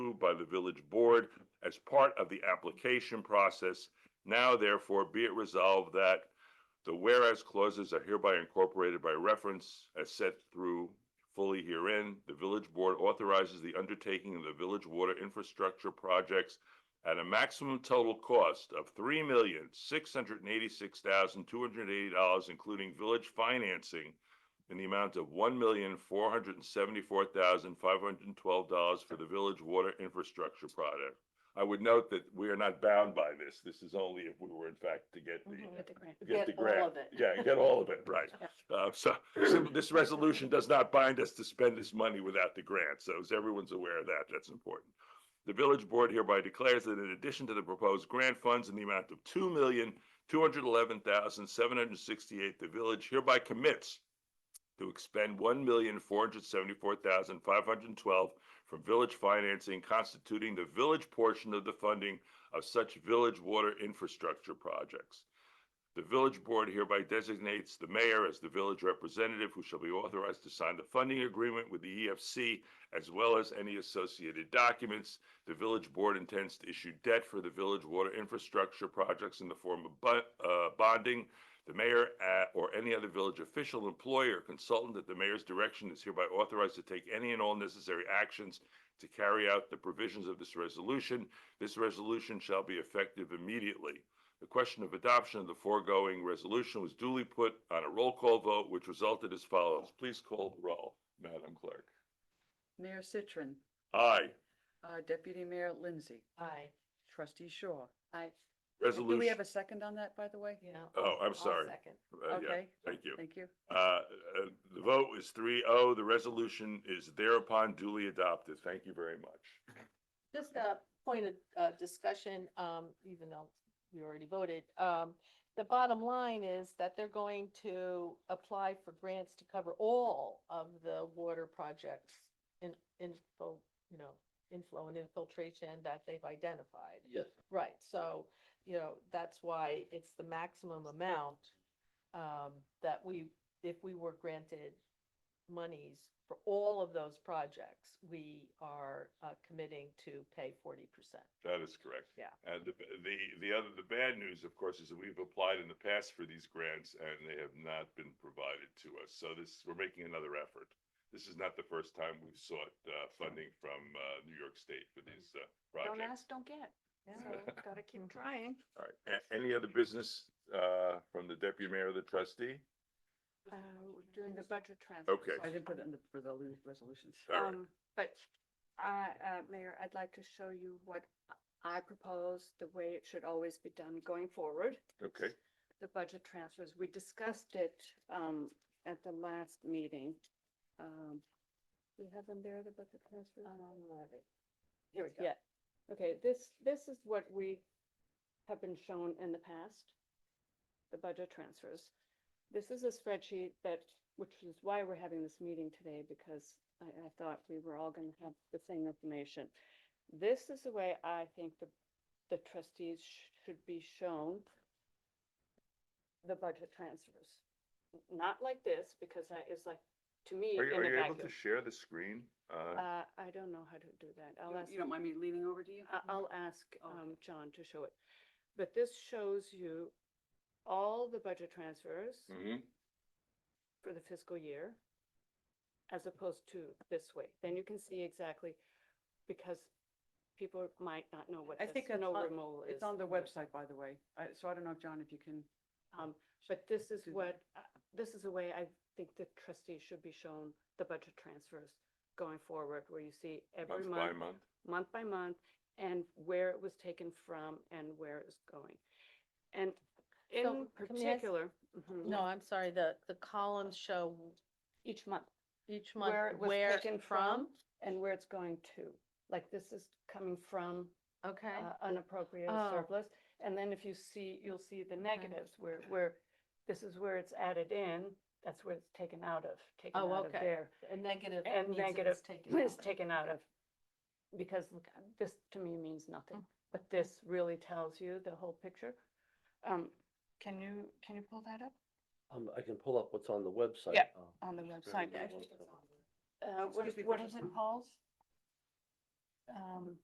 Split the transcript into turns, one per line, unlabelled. by the village board as part of the application process. Now therefore be it resolved that the whereas clauses are hereby incorporated by reference as set through fully herein. The village board authorizes the undertaking of the village water infrastructure projects at a maximum total cost of three million, six hundred and eighty-six thousand, two hundred and eighty dollars, including village financing in the amount of one million, four hundred and seventy-four thousand, five hundred and twelve dollars for the village water infrastructure project. I would note that we are not bound by this. This is only if we were in fact to get the
Mhm.
Get the grant.
get
Get
the
all
grant.
of it.
Yeah, get all of it, right. Uh, so sim- this resolution does not bind us to spend this money without the grant, so as everyone's aware of that, that's important. The village board hereby declares that in addition to the proposed grant funds in the amount of two million, two hundred eleven thousand, seven hundred sixty-eight, the village hereby commits to expend one million, four hundred seventy-four thousand, five hundred twelve from village financing constituting the village portion of the funding of such village water infrastructure projects. The village board hereby designates the mayor as the village representative who shall be authorized to sign the funding agreement with the EFC as well as any associated documents. The village board intends to issue debt for the village water infrastructure projects in the form of bu- uh, bonding. The mayor uh, or any other village official, employee, or consultant at the mayor's direction is hereby authorized to take any and all necessary actions to carry out the provisions of this resolution. This resolution shall be effective immediately. The question of adoption of the foregoing resolution was duly put on a roll call vote, which resulted as follows. Please call the roll, Madam Clerk.
Mayor Citron,
Aye.
uh, Deputy Mayor Lindsay,
Aye.
Trustee Shaw.
Aye.
Do we have
Resolution,
a second on that, by the way?
Yeah.
Oh, I'm
I'll
sorry.
second.
uh, yeah,
Okay,
thank you.
thank you.
Uh, uh, The vote is three oh. The resolution is thereupon duly adopted. Thank you very much.
Just a point of uh, discussion, um, even though we already voted. um, The bottom line is that they're going to apply for grants to cover all of the water projects in, info, you know, inflow and infiltration that they've identified.
Yes.
Right, so, you know, that's why it's the maximum amount um, that we, if we were granted monies for all of those projects, we are uh, committing to pay forty percent.
That is correct.
Yeah.
And the, the, the other, the bad news, of course, is that we've applied in the past for these grants and they have not been provided to us. So this, we're making another effort. This is not the first time we've sought uh, funding from uh, New York State for these uh,
Mm-hmm. Don't
projects.
ask, don't get.
So,
gotta keep trying.
All right. A- Any other business uh, from the deputy mayor or the trustee?
During uh, the budget transfer.
Okay.
I didn't put it in the, for the resolutions.
All right.
Um, but I, uh, Mayor, I'd like to show you what I propose, the way it should always be done going forward.
Okay.
The budget transfers, we discussed it, um, at the last meeting. Um, we have them there, the budget transfers? Here we go.
Yeah.
Okay, this, this is what we have been shown in the past, the budget transfers. This is a spreadsheet that, which is why we're having this meeting today, because I, I thought we were all gonna have the same information. This is the way I think the, the trustees sh- should be shown the budget transfers. Not like this, because that is like, to me,
Are you,
in
are
a
you able to
vacuum.
share the screen? Uh,
Uh, I don't know how to do that. I'll ask.
You don't mind me leaning over to you?
I- I'll ask
Oh.
um, John to show it. But this shows you all the budget transfers
Mm.
mhm.
for the fiscal year as opposed to this way. Then you can see exactly, because people might not know what
I think
this
it's
snow
on-
removal is.
It's on the website, by the way. I- So I don't know if, John, if you can.
Um, But this is
Do that.
what, uh, this is the way I think the trustees should be shown the budget transfers going forward, where you see every
Month by
month
month.
month by month and where it was taken from and where it was going. And in
So, can we ask-
particular, mhm,
No, I'm sorry, the, the columns show
each month
each month
where it was
where
taken from
from.
and where it's going to. Like this is coming from
Okay,
uh, unappropriated
Oh.
surplus. And then if you see, you'll see the negatives where, where this is where it's added in, that's where it's taken out of, taken
Oh,
out of
okay.
there.
and negative. means it
and
was
negative
taken
is
out.
taken out of, because look, uh, this to me means
Mm.
nothing, but this really tells you the whole picture. Um,
Can you, can you pull that up?
Um, I can pull up what's on the website.
Yeah,
um,
on the
it's
website.
very
Yeah, I
well
think
done.
uh, what
Excuse
is,
me for
what
just
is
a
it
moment.
called? Um,